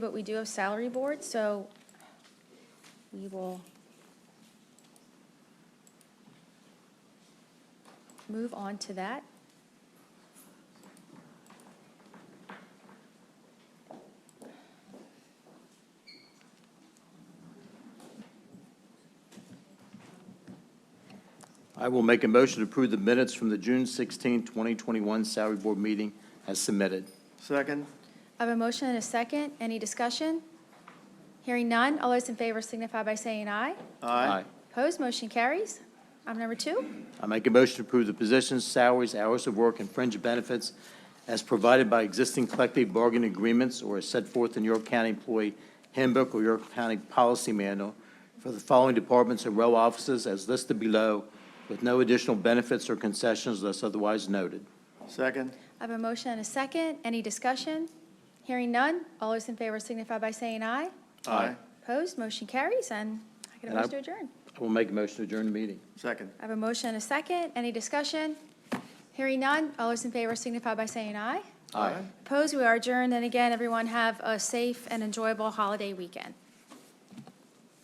But we do have salary board, so we will move on to that. I will make a motion to approve the minutes from the June 16, 2021 Salary Board meeting as submitted. Second. I have a motion and a second. Any discussion? Hearing none. All those in favor signify by saying aye. Opposed, motion carries. Item number two. I make a motion to approve the positions, salaries, hours of work, and fringe benefits as provided by existing collective bargaining agreements or as set forth in York County Employee Handbook or York County Policy Manual for the following departments and row offices as listed below, with no additional benefits or concessions unless otherwise noted. Second. I have a motion and a second. Any discussion? Hearing none. All those in favor signify by saying aye. Aye. Opposed, motion carries, and I get a And I- motion to adjourn. I will make a motion to adjourn the meeting. Second. I have a motion and a second. Any discussion? Hearing none. All those in favor signify by saying aye. Aye. Opposed, we are adjourned. And again, everyone have a safe and enjoyable holiday weekend.